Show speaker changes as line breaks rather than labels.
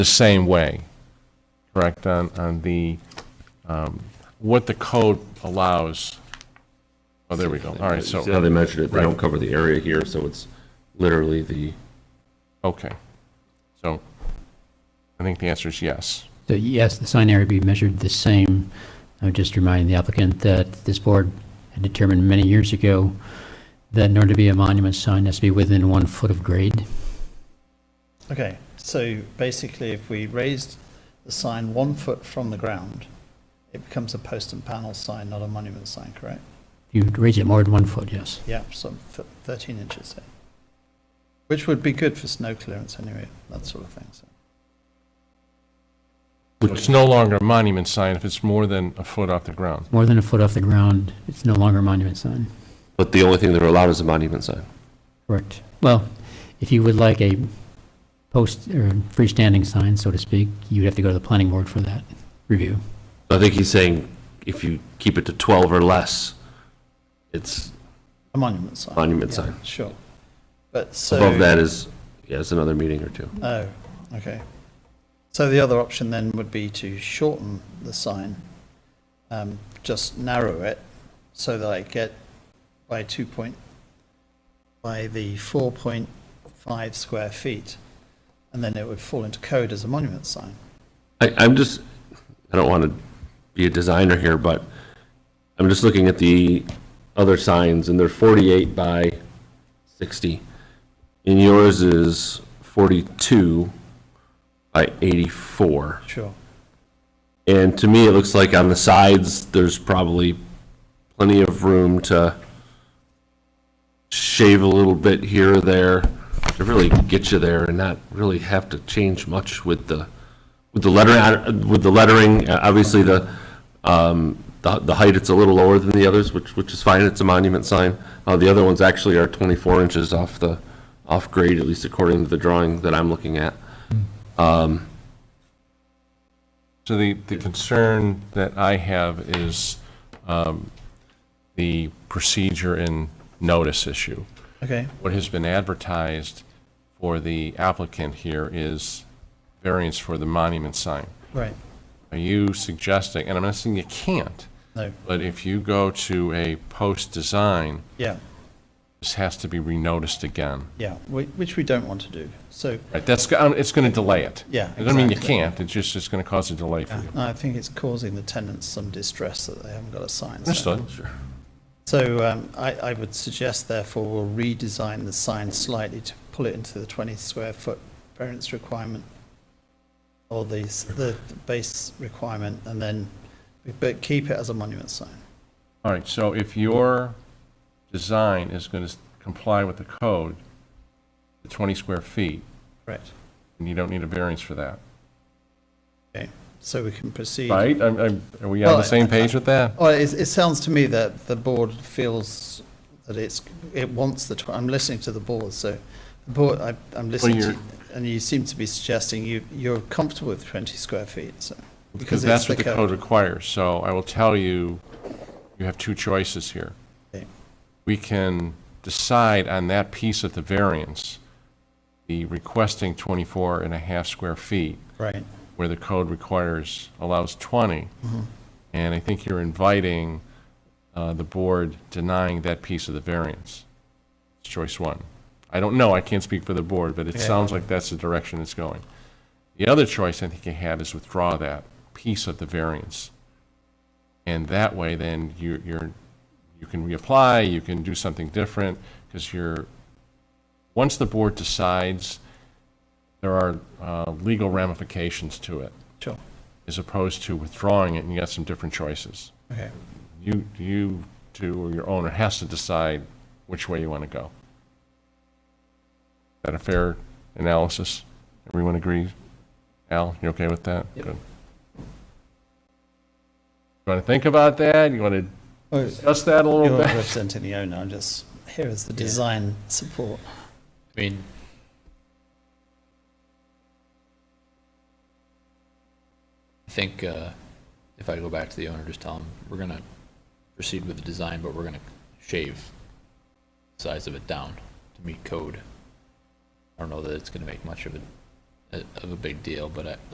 the same way, correct, on, on the, um, what the code allows. Oh, there we go. All right,
See how
so,
they measured it, they
Right.
don't cover the area here, so it's literally the,
okay. So I think the answer is yes.
So yes, the sign area be measured the same. I would just remind the applicant that this board had determined many years ago that in order to be a monument sign, it has to be within one foot of grade.
Okay, so basically if we raised the sign one foot from the ground, it becomes a post and panel sign, not a monument sign, correct?
You raise it more than one foot, yes.
Yeah, so th- thirteen inches, say. Which would be good for snow clearance anyway, that sort of thing, so.
It's no longer a monument sign if it's more than a foot off the ground.
More than a foot off the ground, it's no longer a monument sign.
but the only thing they're allowed is a monument sign.
Correct. Well, if you would like a post or freestanding sign, so to speak, you'd have to go to the planning board for that review.
I think he's saying if you keep it to 12 or less, it's
A monument sign.
monument
Yeah,
sign.
Sure. But so.
Above that is, yeah, it's another meeting or two.
Oh, okay. So the other option then would be to shorten the sign, um, just narrow it so that I get by two point, by the four point five square feet, and then it would fall into code as a monument sign.
I, I'm just, I don't want to be a designer here, but I'm just looking at the other signs, and they're 48 by 60. And yours is 42 by 84.
Sure.
And to me, it looks like on the sides, there's probably plenty of room to shave a little bit here or there to really get you there and not really have to change much with the, with the lettering, with the lettering. Uh, Obviously, the, um, the the height, it's a little lower than the others, which, which is fine. It's a monument sign. Uh, the other ones actually are 24 inches off the, off grade, at least according to the drawing that I'm looking at.
So the, the concern that I have is um, the procedure and notice issue.
Okay,
What has been advertised for the applicant here is variance for the monument sign.
right,
Are you suggesting, and I'm not saying you can't,
no,
but if you go to a post design,
yeah,
this has to be renoticed again.
yeah, whi- which we don't want to do. So,
Right, that's, go- um, it's going to delay it.
Yeah,
It doesn't mean you
exactly.
can't, it's just, it's going to cause a delay for you.
no, I think it's causing the tenants some distress that they haven't got a sign. so-
Understood?
So um, I, I would suggest therefore we'll redesign the sign slightly to pull it into the 20 square foot variance requirement or the, s- the the base requirement and then, but keep it as a monument sign.
All right, so if your design is going to comply with the code, the 20 square feet,
Correct.
and you don't need a variance for that,
Okay, so we can proceed.
right? I'm- I'm- Are we on the
Well,
same page with that?
Well, it, it sounds to me that the board feels that it's, it wants the, tw- I'm listening to the board, so the board, I, I'm listening to,
you're-
and you seem to be suggesting you, you're comfortable with 20 square feet, so.
Because
it's
that's what the code requires, so I will tell you, you have two choices here.
Okay.
We can decide on that piece of the variance, the requesting 24 and a half square feet,
Right.
where the code requires, allows 20. And I think you're inviting uh, the board denying that piece of the variance. It's choice one. I don't know, I can't speak for the board, but it
Okay.
sounds like that's the direction it's going. The other choice I think you have is withdraw that piece of the variance. And that way, then you- you're, you can reapply, you can do something different, because you're, once the board decides, there are uh, legal ramifications to it,
Sure,
as opposed to withdrawing it and you got some different choices.
okay.
You, you two, or your owner has to decide which way you want to go. Is that a fair analysis? Everyone agrees? Al, you okay with that? Good. You want to think about that? You want to
Oh,
discuss that a
You're
little bit?
not representing the owner, I'm just, here is the design support.
I mean, I think uh, if I go back to the owner, just tell him, we're going to proceed with the design, but we're going to shave the size of it down to meet code. I don't know that it's going to make much of a uh, of a big deal, but I,